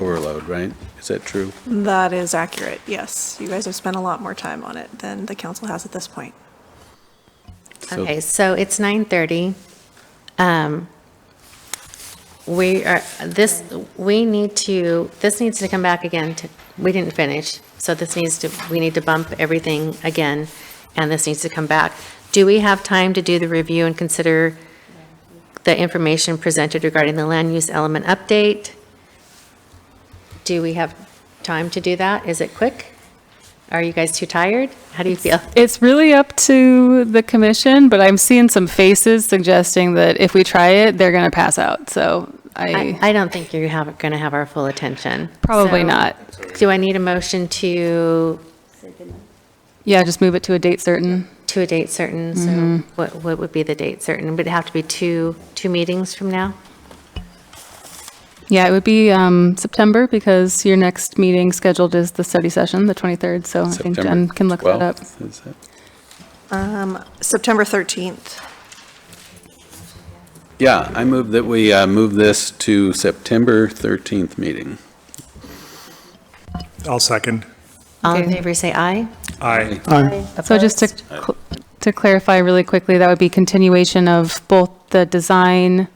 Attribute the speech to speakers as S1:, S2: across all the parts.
S1: overload, right? Is that true?
S2: That is accurate, yes. You guys have spent a lot more time on it than the council has at this point.
S1: So-
S3: Okay, so it's 9:30. Um, We are, this, we need to, this needs to come back again to, we didn't finish, so this needs to, we need to bump everything again, and this needs to come back. Do we have time to do the review and consider the information presented regarding the land use element update? Do we have time to do that? Is it quick? Are you guys too tired? How do you feel?
S4: It's really up to the commission, but I'm seeing some faces suggesting that if we try it, they're going to pass out. So
S3: I,
S4: I,
S3: I don't think you have, going to have our full attention.
S4: probably
S3: So,
S4: not.
S3: Do I need a motion to,
S4: Yeah, just move it to a date certain.
S3: to a date certain?
S4: Mm-hmm.
S3: So what, what would be the date certain? Would it have to be two, two meetings from now?
S4: Yeah, it would be um, September because your next meeting scheduled is the study session, the 23rd. So I think
S1: September
S4: Jen can look that up.
S1: 12th, is that-
S2: September 13th.
S1: Yeah, I move that we uh, move this to September 13th meeting.
S5: I'll second.
S3: All in
S4: Okay.
S3: favor, say aye.
S5: Aye.
S4: So just to, cl- to clarify really quickly, that would be continuation of both the design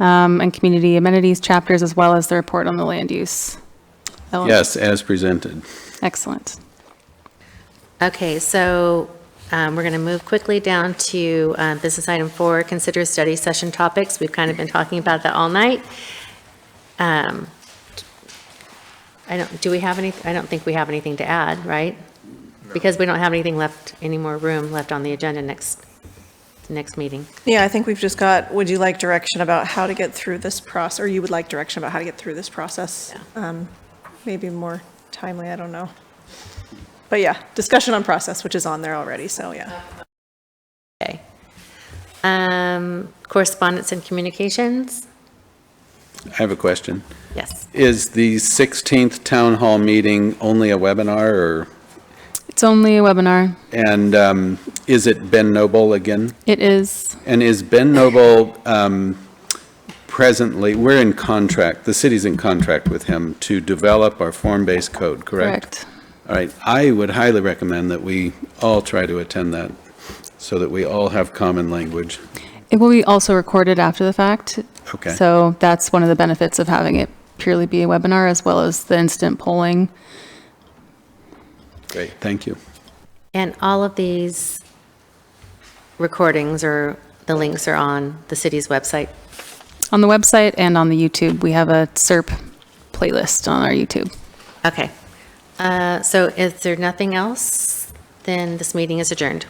S4: um, and community amenities chapters as well as the report on the land use. element.
S1: Yes, as presented.
S4: Excellent.
S3: Okay, so um, we're going to move quickly down to uh, business item four, consider study session topics. We've kind of been talking about that all night. Um, I don't, do we have any, I don't think we have anything to add, right? Because we don't have anything left, any more room left on the agenda next, next meeting.
S2: Yeah, I think we've just got, would you like direction about how to get through this process, or you would like direction about how to get through this process? Um, Maybe more timely, I don't know. But yeah, discussion on process, which is on there already, so yeah.
S3: Okay. Um, Correspondence and communications?
S1: I have a question.
S3: Yes.
S1: Is the 16th town hall meeting only a webinar or,
S4: It's only a webinar.
S1: and um, is it Ben Noble again?
S4: It is,
S1: And is Ben Noble um, presently, we're in contract, the city's in contract with him to develop our form-based code, correct?
S4: correct.
S1: All right, I would highly recommend that we all try to attend that, so that we all have common language.
S4: It will be also recorded after the fact.
S1: Okay.
S4: So that's one of the benefits of having it purely be a webinar as well as the instant polling.
S1: Great, thank you.
S3: And all of these recordings or the links are on the city's website.
S4: On the website and on the YouTube, we have a SERP playlist on our YouTube.
S3: Okay. Uh, So is there nothing else? Then this meeting is adjourned.